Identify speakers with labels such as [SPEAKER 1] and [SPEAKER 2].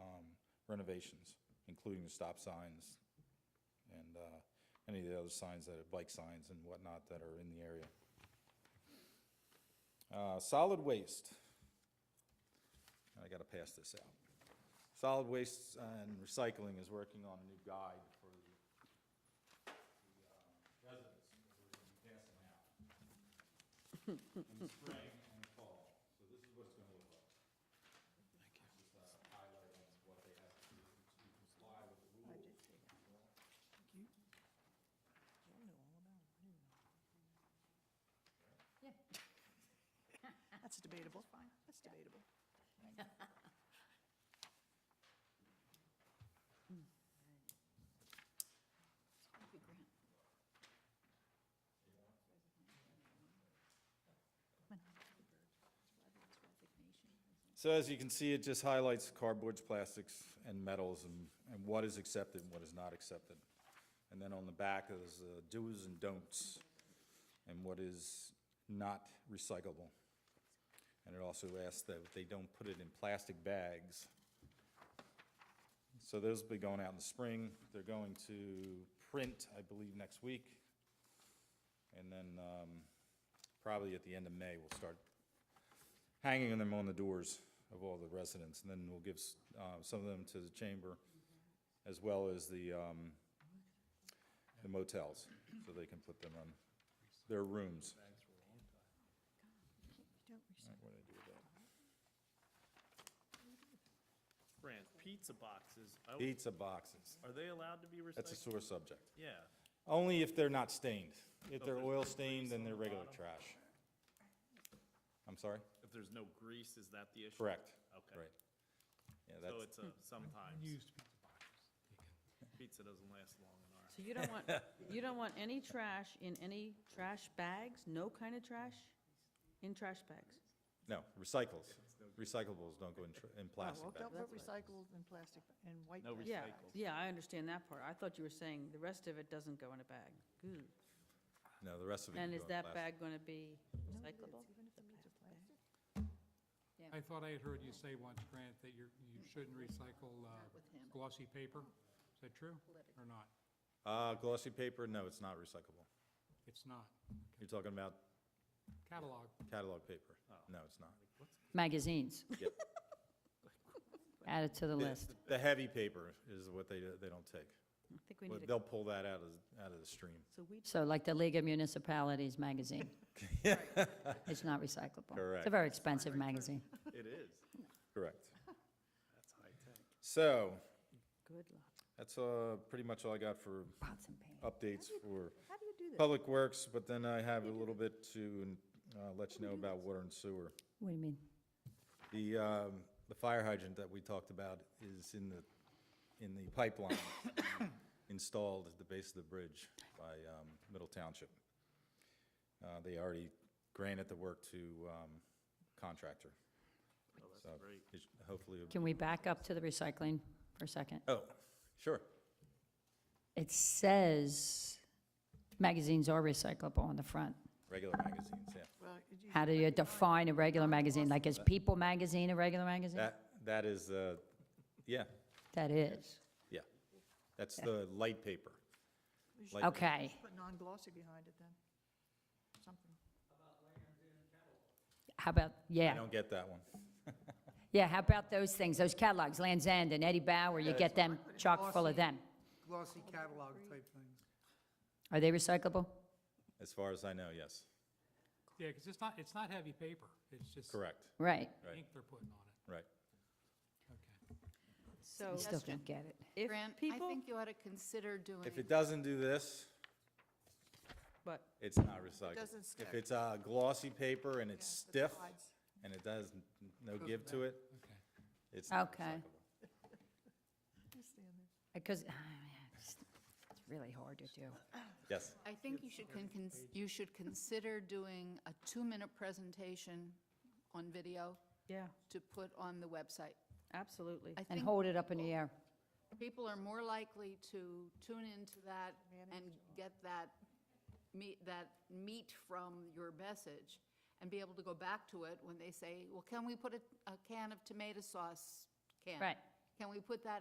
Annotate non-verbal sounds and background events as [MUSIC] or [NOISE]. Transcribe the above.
[SPEAKER 1] um, renovations, including the stop signs and uh, any of the other signs that are, bike signs and whatnot that are in the area. Uh, Solid waste. I gotta pass this out. Solid Waste and Recycling is working on a new guide for the the, uh, residents that we're gonna be passing out in the spring and the fall. So this is what it's gonna look like. Just a highlight of what they have to do to comply with the rules.
[SPEAKER 2] That's debatable. That's debatable.
[SPEAKER 1] So as you can see, it just highlights cardboards, plastics, and metals, and, and what is accepted and what is not accepted. And then on the back is uh, do's and don'ts, and what is not recyclable. And it also asks that they don't put it in plastic bags. So those will be going out in the spring. They're going to print, I believe, next week. And then, um, probably at the end of May, we'll start hanging them on the doors of all the residents, and then we'll give s- uh, some of them to the chamber, as well as the um, the motels, so they can put them on their rooms. All right, what did I do with that?
[SPEAKER 3] Brand, pizza boxes, I-
[SPEAKER 1] Pizza boxes,
[SPEAKER 3] are they allowed to be
[SPEAKER 1] that's a
[SPEAKER 3] recycled?
[SPEAKER 1] sore subject.
[SPEAKER 3] Yeah,
[SPEAKER 1] Only if they're not stained. If they're
[SPEAKER 3] there's
[SPEAKER 1] oil
[SPEAKER 3] no
[SPEAKER 1] stained,
[SPEAKER 3] grease
[SPEAKER 1] then
[SPEAKER 3] on
[SPEAKER 1] they're
[SPEAKER 3] the
[SPEAKER 1] regular
[SPEAKER 3] bottom?
[SPEAKER 1] trash. I'm sorry?
[SPEAKER 3] if there's no grease, is that the issue?
[SPEAKER 1] Correct.
[SPEAKER 3] Okay.
[SPEAKER 1] Right. Yeah,
[SPEAKER 3] So
[SPEAKER 1] that's,
[SPEAKER 3] it's a sometimes, pizza doesn't last long in our,
[SPEAKER 4] So you don't want, you don't want any trash in any trash bags, no kind of trash in trash bags?
[SPEAKER 1] no, recycles. Recyclables don't go in tr- in
[SPEAKER 2] Well,
[SPEAKER 1] plastic
[SPEAKER 2] don't
[SPEAKER 1] bags.
[SPEAKER 2] put recycled and plastic and white.
[SPEAKER 3] No
[SPEAKER 2] plastic.
[SPEAKER 3] recyc- Recycled.
[SPEAKER 4] Yeah, yeah, I understand that part. I thought you were saying the rest of it doesn't go in a bag. Good.
[SPEAKER 1] No, the rest of it can
[SPEAKER 4] And
[SPEAKER 1] go
[SPEAKER 4] is
[SPEAKER 1] in
[SPEAKER 4] that
[SPEAKER 1] plastic.
[SPEAKER 4] bag going to be recyclable?
[SPEAKER 5] I thought I had heard you say once, Grant, that you're, you shouldn't recycle uh, glossy paper. Is that true or not?
[SPEAKER 1] Uh, glossy paper, no, it's not recyclable.
[SPEAKER 5] It's not.
[SPEAKER 1] You're talking about
[SPEAKER 5] Catalog,
[SPEAKER 1] catalog paper? No, it's not.
[SPEAKER 6] Magazines. [LAUGHS]
[SPEAKER 1] Yep.
[SPEAKER 6] Add it to the list.
[SPEAKER 1] The heavy paper is what they, they don't take.
[SPEAKER 4] I think we
[SPEAKER 1] But
[SPEAKER 4] need a,
[SPEAKER 1] they'll pull that out of, out of the stream.
[SPEAKER 4] so we,
[SPEAKER 6] So like the League of
[SPEAKER 1] [LAUGHS]
[SPEAKER 6] Municipalities magazine. It's not recyclable. It's
[SPEAKER 1] Correct.
[SPEAKER 6] a very expensive magazine.
[SPEAKER 3] it is,
[SPEAKER 1] Correct.
[SPEAKER 3] that's high tech.
[SPEAKER 1] So,
[SPEAKER 4] good luck.
[SPEAKER 1] that's, uh, pretty much all I got for
[SPEAKER 6] Pots and pans.
[SPEAKER 1] updates for
[SPEAKER 2] How do you do this?
[SPEAKER 1] Public Works, but then I have a little bit to, uh, let you know about water and sewer.
[SPEAKER 6] What do you mean?
[SPEAKER 1] The, um, the fire hydrant that we talked about is in the, in the pipeline [COUGHS] installed at the base of the bridge by, um, Middle Township. Uh, they already granted the work to, um, contractor.
[SPEAKER 3] Oh,
[SPEAKER 1] So
[SPEAKER 3] that's great.
[SPEAKER 1] it should- Hopefully,
[SPEAKER 6] Can we back up to the recycling for a second?
[SPEAKER 1] oh, sure.
[SPEAKER 6] It says magazines are recyclable on the front.
[SPEAKER 1] Regular magazines, yeah.
[SPEAKER 2] Well, you-
[SPEAKER 6] How do you define a regular magazine? Like is People magazine a regular magazine?
[SPEAKER 1] That, that is, uh, yeah,
[SPEAKER 6] That is.
[SPEAKER 1] yeah. That's the light paper.
[SPEAKER 2] you should
[SPEAKER 1] Light paper.
[SPEAKER 6] Okay.
[SPEAKER 2] Put non-glossy behind it then, something.
[SPEAKER 6] How about,
[SPEAKER 1] I
[SPEAKER 6] yeah,
[SPEAKER 1] don't get that one.
[SPEAKER 6] yeah, how about those things, those catalogs, Land's End and Eddie Bauer, you get them chock full of them.
[SPEAKER 7] glossy catalog type things.
[SPEAKER 6] Are they recyclable?
[SPEAKER 1] As far as I know, yes.
[SPEAKER 5] yeah, because it's not, it's not heavy paper. It's just
[SPEAKER 1] Correct,
[SPEAKER 6] Right.
[SPEAKER 5] ink they're putting on it.
[SPEAKER 1] right.
[SPEAKER 5] Okay.
[SPEAKER 4] So
[SPEAKER 6] You still don't get it.
[SPEAKER 4] if
[SPEAKER 8] Grant, I
[SPEAKER 4] people,
[SPEAKER 8] think you ought to consider doing.
[SPEAKER 1] If it doesn't do this,
[SPEAKER 4] but
[SPEAKER 1] It's not recycled.
[SPEAKER 2] doesn't stick.
[SPEAKER 1] If it's uh, glossy paper and it's
[SPEAKER 2] Yeah, the
[SPEAKER 1] stiff
[SPEAKER 2] slides.
[SPEAKER 1] and it does n- no give to it,
[SPEAKER 5] Okay.
[SPEAKER 1] it's
[SPEAKER 2] Oh.
[SPEAKER 1] not
[SPEAKER 6] Okay.
[SPEAKER 1] recyclable.
[SPEAKER 2] Just stand there.
[SPEAKER 6] [SIGHS] Because, it's it's really hard to do.
[SPEAKER 1] Yes,
[SPEAKER 8] I think you should, con- cons- you should consider doing a two-minute presentation on video
[SPEAKER 4] yeah,
[SPEAKER 8] to put on the website.
[SPEAKER 4] absolutely.
[SPEAKER 8] I
[SPEAKER 6] And
[SPEAKER 8] think
[SPEAKER 6] hold it up in the air.
[SPEAKER 8] people are more likely to tune into that and get that meat, that meat from your message and be able to go back to it when they say, well, can we put a, a can of tomato sauce can?
[SPEAKER 6] Right.
[SPEAKER 8] Can we put that